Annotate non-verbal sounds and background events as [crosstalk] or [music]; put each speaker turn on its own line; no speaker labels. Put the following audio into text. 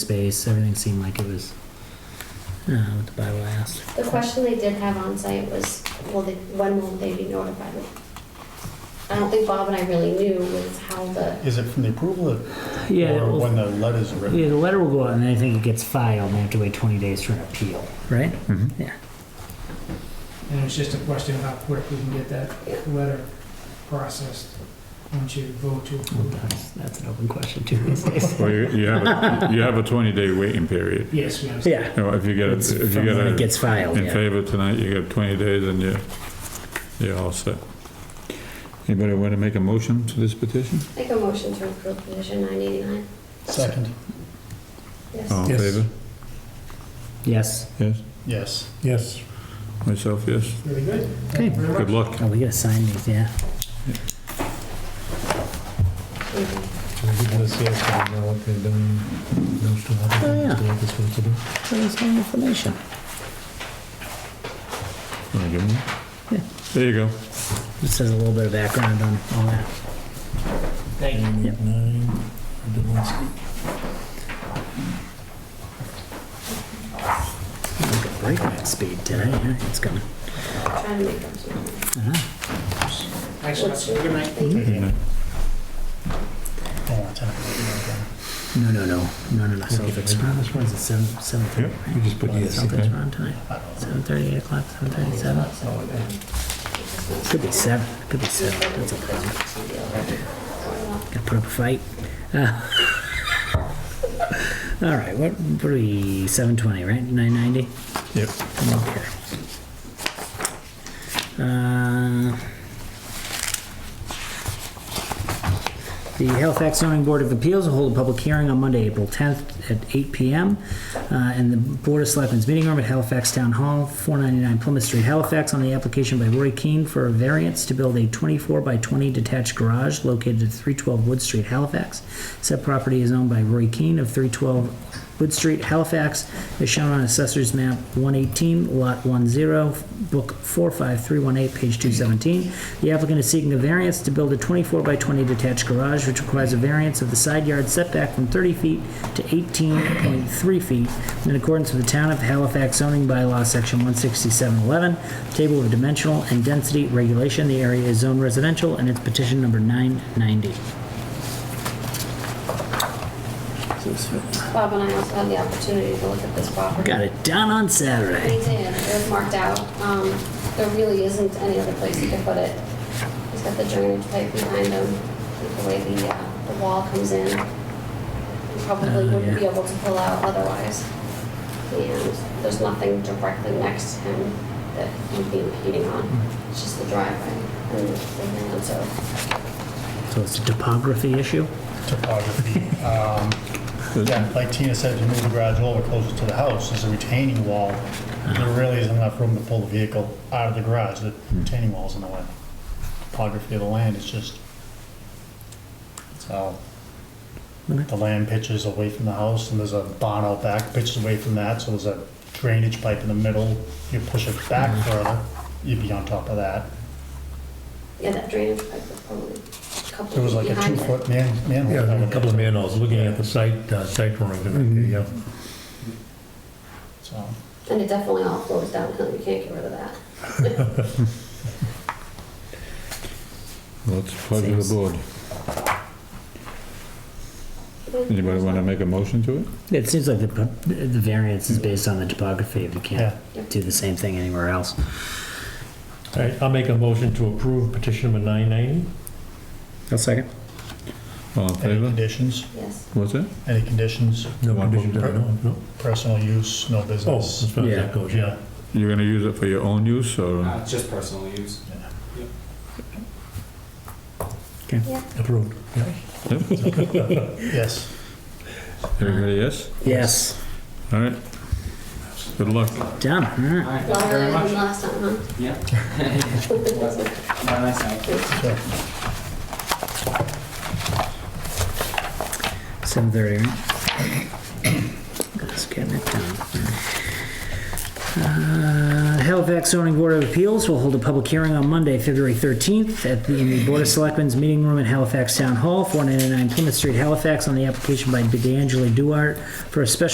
space, everything seemed like it was, uh, what the bylaw asked.
The question they did have on site was, will they, when will they be notified? I don't think Bob and I really knew was how the,
Is it from the approval of-
Yeah,
or
well,
when the letter's
yeah,
written?
the letter will go out and then I think it gets filed and they have to wait twenty days for an appeal, right? Yeah.
And it's just a question of how quick we can get that letter processed once you vote to
Well,
approve. it.
That's, that's an open question too these days.
Well, you, you have, a- you have a twenty day waiting period.
Yes, we understand.
[laughs] Yeah.
You know, if you get,
It's
a- if you
from
get
when it
a
gets filed,
in
yeah.
favor tonight, you get twenty days and you, you're all set. Anybody want to make a motion to this petition?
make a motion to approve petition nine eighty-nine.
Second,
Yes.
All in
Yes.
favor?
Yes,
Yes?
yes.
Yes.
Myself, yes.
Really good.
okay.
Thank you very
Good
much.
luck.
Oh, we gotta sign these, yeah.
So we give this yes, I don't know what they've done, those two other
Oh, yeah.
things they're supposed to do.
There's some information.
Wanna give them?
Yeah.
There you go.
Just says a little bit of background on all that. uh,
Thank you.
And
Yep.
nine, the ones-
Look at breakneck speed today, huh? It's coming.
Trying to make up some.
Uh-huh.
Thanks, guys. Have a Good night.
Thank you.
Don't wanna talk about it again.
No, no, no, no, no, no, so if it's, which one's it, seven, seven
Yeah,
thirty?
you just put yes,
Something's
okay?
wrong tonight. Seven thirty, eight o'clock, seven thirty-seven? Could be seven, could be seven, that's a problem. Gotta put up a fight. Uh, [laughs] All right, what, what are we, seven twenty, right, nine ninety?
Yep.
Okay. Uh, The Halifax zoning board of appeals will hold a public hearing on Monday, April 10th at 8 PM uh, in the Board of Selectmen's meeting room at Halifax Town Hall, 499 Plymouth Street, Halifax, on the application by Roy Keane for a variance to build a 24 by 20 detached garage located at 312 Wood Street, Halifax. Said property is owned by Roy Keane of 312 Wood Street, Halifax, is shown on Assessor's Map 118, Lot 10, Book 45318, page 217. The applicant is seeking a variance to build a 24 by 20 detached garage, which requires a variance of the side yard setback from 30 feet to 18.3 feet in accordance with the Town of Halifax zoning bylaw, Section 16711, Table of Dimensional and Density Regulation. The area is zoned residential, and it's petition number 990.
Bob and I also had the opportunity to look at this property.
Got it done on Saturday.
They did, it was marked out. Um, there really isn't any other place you can put it. He's got the drainage pipe behind him, the way the, uh, the wall comes in. You Probably
Oh,
wouldn't be
yeah.
able to pull out otherwise. And there's nothing directly next to him that he'd be impeding on. It's just the driveway and the thing, and so.
So it's a topography issue?
Topography. Um, Yeah, like Tina said, you move the garage a little closer to the house, there's a retaining wall. There really isn't enough room to pull the vehicle out of the garage, the
Hmm.
retaining wall's in the way. Topography of the land is just, it's how
Okay.
the land pitches away from the house, and there's a barn out back, pitches away from that, so there's a drainage pipe in the middle. You push it back
Hmm.
further, you'd be on top of that.
Yeah, that drainage pipe was probably a couple
There was like a
behind it.
two-foot man, manhole.
Yeah,
cover
a
there.
couple of manholes, looking at the site, uh, site drawing,
Mhm.
yeah.
So,
And it definitely all flows downhill, you can't get rid of that.
Well, it's a pleasure of the board. Anybody want to make a motion to it?
It seems like the, the variance is based on the topography, if you can't
yeah.
do the same thing anywhere else.
All right, I'll make a motion to approve petition number 990.
I'll second.
All in
Any
favor?
conditions?
Yes.
What's that?
Any conditions?
Oh, No
One
conditions,
vote.
I don't know.
Personal use, no
Oh,
business?
as far as
Yeah.
that goes, yeah.
You're gonna use it for your own use or?
Ah.
Uh, just personal use.
Approved, yeah.
[laughs]
Oh.
Yes.
Everybody, yes?
Yes,
All right. Good luck.
done, all right.
Alright, thank you
Longer
very
than
much.
last time, huh?
Yeah. [laughs] Have a nice night.
Seven thirty, right? Just getting it done. Uh, Halifax Zoning Board of Appeals will hold a public hearing on Monday, February 13th, at the, in the Board of Selectmen's Meeting Room at Halifax Town Hall, 499 Plymouth Street, Halifax, on the application by D'Angelo Duart for a special